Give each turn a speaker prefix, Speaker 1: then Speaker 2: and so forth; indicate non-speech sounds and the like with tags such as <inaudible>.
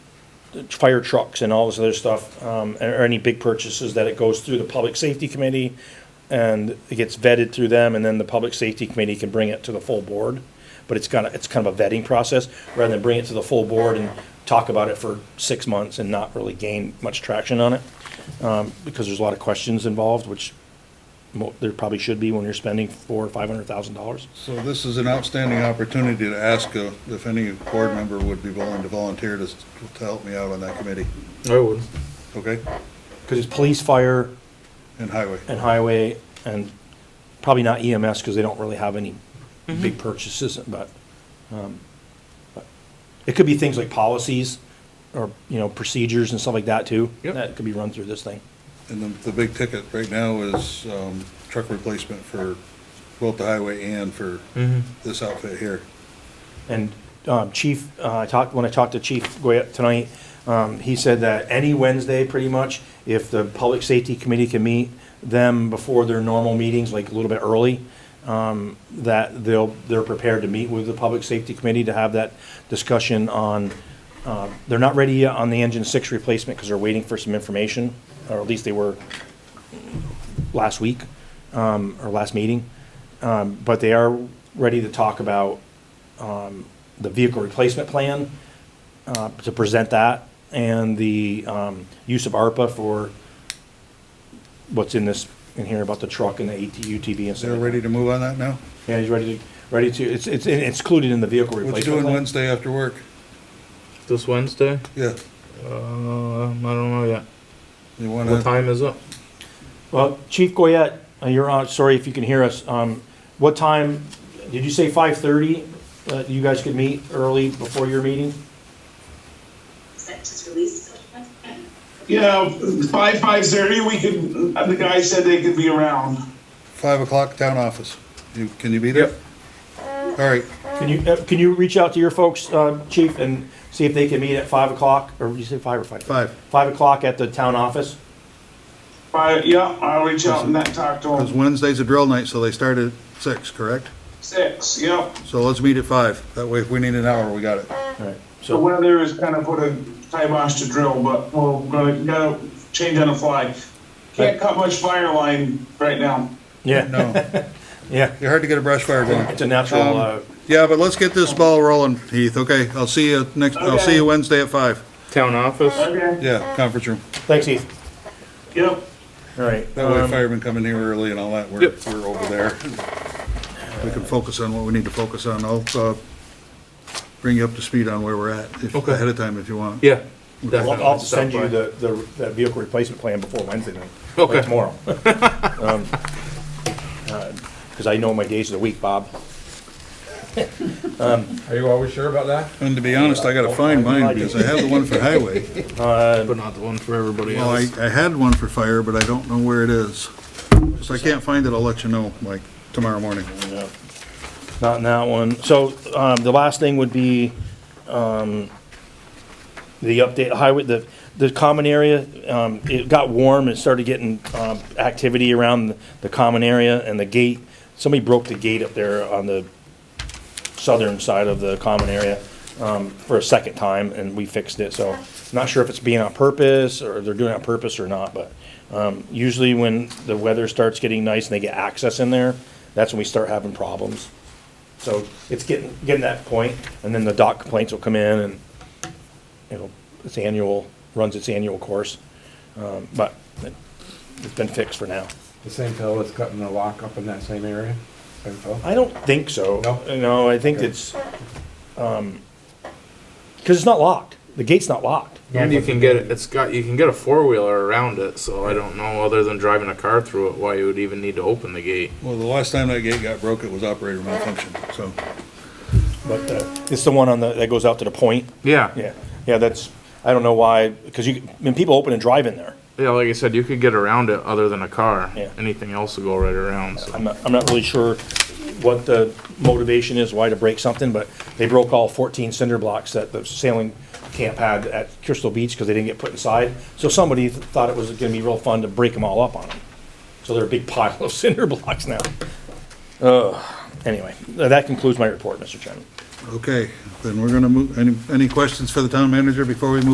Speaker 1: the fire trucks and all this other stuff, um, or or any big purchases, that it goes through the Public Safety Committee, and it gets vetted through them, and then the Public Safety Committee can bring it to the full board. But it's kind of, it's kind of a vetting process, rather than bring it to the full board and talk about it for six months and not really gain much traction on it. Um, because there's a lot of questions involved, which mo- there probably should be when you're spending four or five hundred thousand dollars.
Speaker 2: So this is an outstanding opportunity to ask uh, if any board member would be willing to volunteer to, s- to help me out on that committee,
Speaker 3: I would.
Speaker 2: okay?
Speaker 1: Because it's police, fire,
Speaker 2: And highway.
Speaker 1: and highway, and probably not E EMS, because they don't really have any big purchases, but, um, but it could be things like policies, or, you know, procedures and stuff like that, too.
Speaker 3: Yep.
Speaker 1: That could be run through this thing.
Speaker 2: And the, the big ticket right now is, um, truck replacement for both the highway and for this outfit here.
Speaker 1: And um, Chief, uh, I talked, when I talked to Chief Goyette tonight, um, he said that any Wednesday, pretty much, if the Public Safety Committee can meet them before their normal meetings, like a little bit early, um, that they'll, they're prepared to meet with the Public Safety Committee to have that discussion on, uh, they're not ready yet on the engine six replacement because they're waiting for some information, or at least they were last week, um, or last meeting. Um, But they are ready to talk about um, the vehicle replacement plan, uh, to present that, and the, um, use of ARPA for what's in this, in here about the truck and the AT, UTV and stuff.
Speaker 2: They're
Speaker 1: like
Speaker 2: ready to move on that now?
Speaker 1: that. Yeah, he's ready to, ready to, it's, it's it's included in the vehicle
Speaker 2: What
Speaker 1: replacement
Speaker 2: you doing
Speaker 1: plan.
Speaker 2: Wednesday after work?
Speaker 3: This Wednesday?
Speaker 2: Yeah,
Speaker 3: Um, I don't know yet.
Speaker 2: you
Speaker 3: What
Speaker 2: wanna,
Speaker 3: time is it?
Speaker 1: Well, Chief Goyette, uh, you're on, sorry if you can hear us, um, what time, did you say five thirty? Uh, you guys could meet early before your meeting?
Speaker 4: Is that just released?
Speaker 5: You know, five, five thirty, we could, the guy said they could be around.
Speaker 2: five o'clock, town office. You, can you be there? All right,
Speaker 1: Can you, uh, can you reach out to your folks, uh, chief, and see if they can meet at five o'clock, or you say five or five?
Speaker 2: Five.
Speaker 1: Five o'clock at the town office?
Speaker 5: Five, yeah, I'll reach out and that talk to
Speaker 2: because
Speaker 5: him.
Speaker 2: Wednesday's a drill night, so they start at six, correct?
Speaker 5: Six, yep.
Speaker 2: So let's meet at five. That way, if we need an hour, we got it.
Speaker 1: Alright,
Speaker 5: The
Speaker 1: so,
Speaker 5: weather has kind of put a kibosh to drill, but we're gonna, gotta change on the fly. Can't cut much fire line right now.
Speaker 1: yeah,
Speaker 2: No.
Speaker 1: <laughs>
Speaker 2: Um,
Speaker 1: yeah,
Speaker 2: You're hard to get a brush fire going.
Speaker 1: it's a natural, uh,
Speaker 2: Yeah, but let's get this ball rolling, Heath, okay? I'll see you next, I'll see you Wednesday at five.
Speaker 3: Town office?
Speaker 5: Okay,
Speaker 2: Yeah, conference room.
Speaker 1: thanks, Heath,
Speaker 5: yep.
Speaker 1: alright.
Speaker 2: That way
Speaker 1: um,
Speaker 2: firemen come in here early and all that, we're,
Speaker 3: Yep.
Speaker 2: we're over there. We can focus on what we need to focus on. I'll, uh, bring you up to speed on where we're at, if,
Speaker 3: Okay.
Speaker 2: ahead of time if you want.
Speaker 3: Yeah.
Speaker 1: I'll,
Speaker 3: definitely.
Speaker 1: I'll send
Speaker 3: Stop
Speaker 1: you
Speaker 3: by.
Speaker 1: the, the, that vehicle replacement plan before Wednesday night. or
Speaker 3: Okay.
Speaker 1: Tomorrow. <laughs> Um, uh, Cause I know my days of the week, Bob.
Speaker 6: Are you always sure about that?
Speaker 2: And to be honest, I gotta find mine, because I have the one for highway.
Speaker 3: But not the one for everybody
Speaker 2: <laughs> Well, I,
Speaker 3: else.
Speaker 2: I had one for fire, but I don't know where it is. If I can't find it, I'll let you know, like, tomorrow morning.
Speaker 1: Yeah. Not in that one. So, um, the last thing would be, um, the update highway, the, the common area, um, it got warm, it started getting, um, activity around the common area and the gate. Somebody broke the gate up there on the southern side of the common area, um, for a second time and we fixed it, so. Not sure if it's being on purpose or they're doing it on purpose or not, but, um, usually when the weather starts getting nice and they get access in there, that's when we start having problems. So it's getting, getting that point, and then the dock complaints will come in and it'll, its annual, runs its annual course. Um, but it- it's been fixed for now.
Speaker 6: The same fellow that's cutting the lock up in that same area? Same fellow?
Speaker 1: I don't think so.
Speaker 6: No?
Speaker 1: No, I think
Speaker 6: Okay.
Speaker 1: it's, um 'cause cause it's not locked. The gate's not locked.
Speaker 3: And you can get, it. it's got, you can get a four-wheeler around it, so I don't know, other than driving a car through it, why you would even need to open the gate.
Speaker 2: Well, the last time that gate got broke, it was operator malfunction, so.
Speaker 1: But, uh, it's the one on the, that goes out to the point.
Speaker 3: Yeah,
Speaker 1: Yeah, yeah, that's, I don't know why, cause you, I mean, people open and drive in there.
Speaker 3: yeah, like I said, you could get around it other than a car.
Speaker 1: Yeah.
Speaker 3: Anything else will go right around, so.
Speaker 1: I'm not, I'm not really sure what the motivation is, why to break something, but they broke all 14 cinder blocks that the sailing camp had at Crystal Beach because they didn't get put inside. So somebody th- thought it was going to be real fun to break them all up on them. So they're a big pile of <laughs> cinder blocks now. Ugh. Anyway, th- that concludes my report, Mr. Chairman.
Speaker 2: Okay, then we're gonna move, any, any questions for the town manager before we move